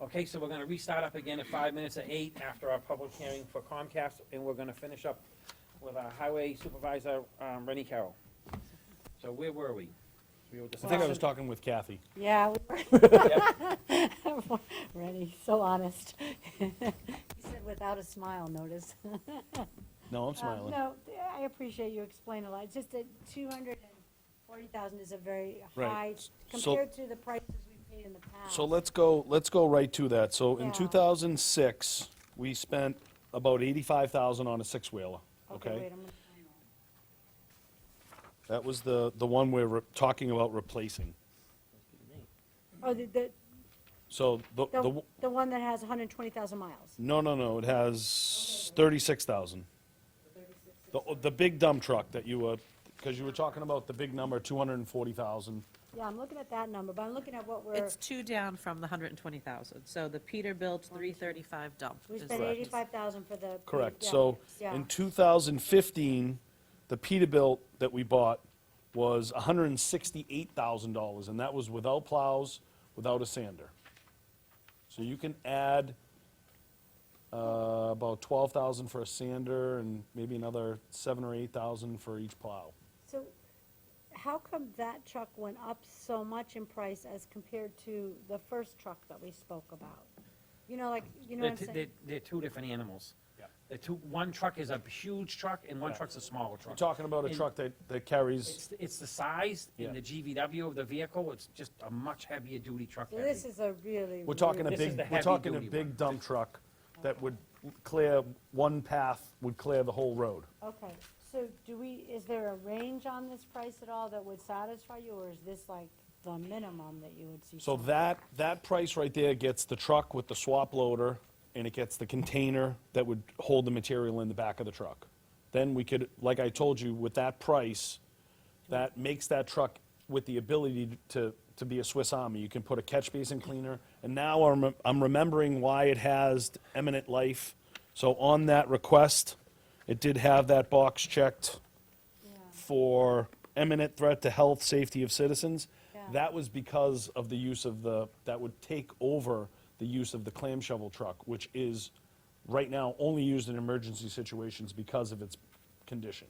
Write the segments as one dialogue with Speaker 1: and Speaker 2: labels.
Speaker 1: Okay, so we're gonna restart up again at five minutes of eight after our public hearing for Comcast, and we're gonna finish up with our highway supervisor, um, Rennie Carroll. So where were we? We were
Speaker 2: I think I was
Speaker 1: discussing,
Speaker 2: talking with Kathy.
Speaker 3: Yeah,
Speaker 1: Yep.
Speaker 3: we were. Ready, so honest. He said without a smile, notice.
Speaker 2: No, I'm
Speaker 3: Um,
Speaker 2: smiling.
Speaker 3: No, th- I appreciate you explain a lot. It's just that two hundred and forty thousand is a very
Speaker 2: Right.
Speaker 3: high,
Speaker 2: So-
Speaker 3: compared to the prices we've paid in the past.
Speaker 2: So let's go, let's go right to that. So in
Speaker 3: Yeah.
Speaker 2: 2006, we spent about 85,000 on a six-wheeler,
Speaker 3: wait,
Speaker 2: okay?
Speaker 3: I'm gonna find that.
Speaker 2: That was the, the one we're re- talking about replacing.
Speaker 3: Oh, the, the,
Speaker 2: So the, the,
Speaker 3: the,
Speaker 2: w-
Speaker 3: the one that has hundred and twenty thousand miles.
Speaker 2: no, no, no, it has 36,000. The, the big dump truck that you were, because you were talking about the big number, 240,000.
Speaker 3: Yeah, I'm looking at that number, but I'm looking at what we're,
Speaker 4: It's two down from the hundred and twenty thousand, so the Peterbilt three thirty-five dump.
Speaker 3: we
Speaker 4: is-
Speaker 3: spent eighty-five thousand for the.
Speaker 2: Correct,
Speaker 3: yeah,
Speaker 2: so
Speaker 3: yeah.
Speaker 2: in 2015, the Peterbilt that we bought was $168,000, and that was without plows, without a sander. So you can add uh, about 12,000 for a sander and maybe another 7 or 8,000 for each plow.
Speaker 3: So how come that truck went up so much in price as compared to the first truck that we spoke about? You know, like, you know
Speaker 1: they're,
Speaker 3: what I'm
Speaker 1: t-
Speaker 3: saying?
Speaker 1: they're, they're two different animals.
Speaker 2: Yeah.
Speaker 1: The two, one truck is a huge truck and one
Speaker 2: Yeah.
Speaker 1: truck's a smaller
Speaker 2: We're
Speaker 1: truck.
Speaker 2: talking about a
Speaker 1: And
Speaker 2: truck that that carries,
Speaker 1: It's, it's the size
Speaker 2: Yeah.
Speaker 1: and the GVW of the vehicle, it's just a much heavier duty truck.
Speaker 3: So
Speaker 1: heavy.
Speaker 3: this is a really.
Speaker 2: we're talking a
Speaker 1: This is
Speaker 2: big,
Speaker 1: the
Speaker 2: we're talking a
Speaker 1: heavy-duty one.
Speaker 2: big dump truck that would clear, one path would clear the whole road.
Speaker 3: Okay, so do we, is there a range on this price at all that would satisfy you, or is this like the minimum that you would see?
Speaker 2: So
Speaker 3: someone-
Speaker 2: that, that price right there gets the truck with the swap loader, and it gets the container that would hold the material in the back of the truck. Then we could, like I told you, with that price, that makes that truck with the ability to, to be a Swiss Army. You can put a catch basin cleaner, and now I'm, I'm remembering why it has eminent life. So on that request, it did have that box checked
Speaker 3: Yeah,
Speaker 2: for imminent threat to health, safety of citizens.
Speaker 3: Yeah.
Speaker 2: That was because of the use of the, that would take over the use of the clam shovel truck, which is right now only used in emergency situations because of its condition.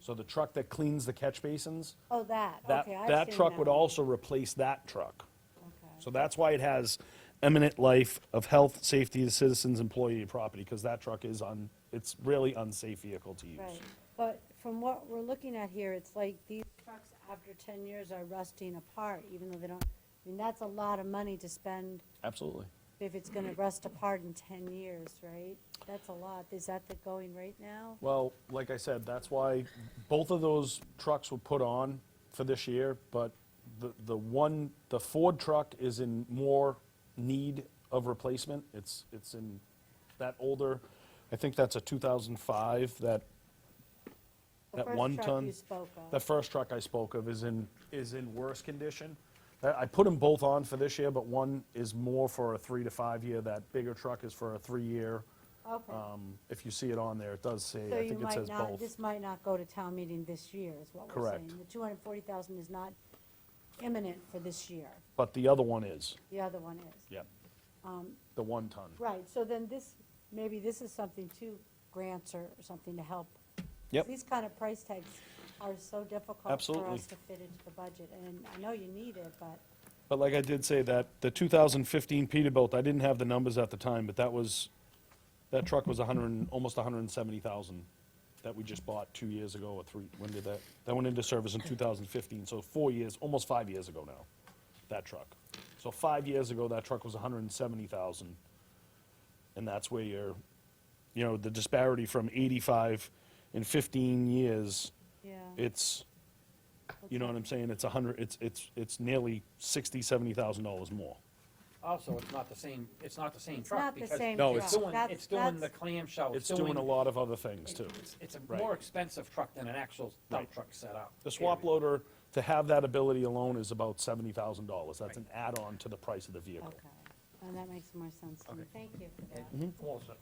Speaker 2: So the truck that cleans the catch basins,
Speaker 3: Oh, that,
Speaker 2: that,
Speaker 3: okay, I've seen
Speaker 2: that truck would
Speaker 3: one.
Speaker 2: also replace that truck.
Speaker 3: Okay.
Speaker 2: So that's why it has imminent life of health, safety of citizens, employee, and property, because that truck is on, it's really unsafe vehicle to use.
Speaker 3: Right, but from what we're looking at here, it's like these trucks after ten years are rusting apart, even though they don't, I mean, that's a lot of money to spend
Speaker 2: Absolutely.
Speaker 3: if it's gonna rust apart in ten years, right? That's a lot, is that the going rate now?
Speaker 2: Well, like I said, that's why both of those trucks were put on for this year, but the, the one, the Ford truck is in more need of replacement. It's, it's in that older, I think that's a 2005, that,
Speaker 3: The
Speaker 2: that
Speaker 3: first
Speaker 2: one
Speaker 3: truck
Speaker 2: ton.
Speaker 3: you spoke of.
Speaker 2: The first truck I spoke of is in, is in worse condition. I I put them both on for this year, but one is more for a three to five year. That bigger truck is for a three-year.
Speaker 3: Okay,
Speaker 2: Um, If you see it on there, it does say,
Speaker 3: so
Speaker 2: I
Speaker 3: you
Speaker 2: think it
Speaker 3: might
Speaker 2: says
Speaker 3: not,
Speaker 2: both.
Speaker 3: this might not go to town meeting this year, is what we're saying.
Speaker 2: Correct.
Speaker 3: The two hundred and forty thousand is not imminent for this year,
Speaker 2: But the other one is,
Speaker 3: the other one is.
Speaker 2: yep.
Speaker 3: Um,
Speaker 2: The one ton.
Speaker 3: Right, so then this, maybe this is something too, grants or something to help.
Speaker 2: Yep.
Speaker 3: These kind of price tags are so difficult for
Speaker 2: Absolutely.
Speaker 3: us to fit into the budget, and I know you need it, but,
Speaker 2: But like I did say, that, the 2015 Peterbilt, I didn't have the numbers at the time, but that was, that truck was 100, and- almost 170,000 that we just bought two years ago or three, when did that, that went into service in 2015, so four years, almost five years ago now, that truck. So five years ago, that truck was 170,000. And that's where you're, you know, the disparity from 85 in 15 years
Speaker 3: yeah.
Speaker 2: it's, you know what I'm saying, it's a hundred, it's, it's, it's nearly sixty, seventy thousand dollars more.
Speaker 1: Also, it's not the same, it's not the same
Speaker 3: It's
Speaker 1: truck
Speaker 3: not the
Speaker 1: because.
Speaker 3: same
Speaker 2: No,
Speaker 3: truck.
Speaker 1: It's doing,
Speaker 3: That's-
Speaker 1: it's doing the
Speaker 3: that's-
Speaker 1: clamshell.
Speaker 2: It's doing a lot of other things too.
Speaker 1: It's, it's a
Speaker 2: Right.
Speaker 1: more expensive truck than an actual dump
Speaker 2: Right.
Speaker 1: truck setup.
Speaker 2: The swap
Speaker 1: period.
Speaker 2: loader, to have that ability alone is about seventy thousand dollars, that's an
Speaker 1: Right.
Speaker 2: add-on to the price of the vehicle.
Speaker 3: Okay, and that makes more sense to me,
Speaker 1: Okay.
Speaker 3: thank you for that.
Speaker 1: Awesome.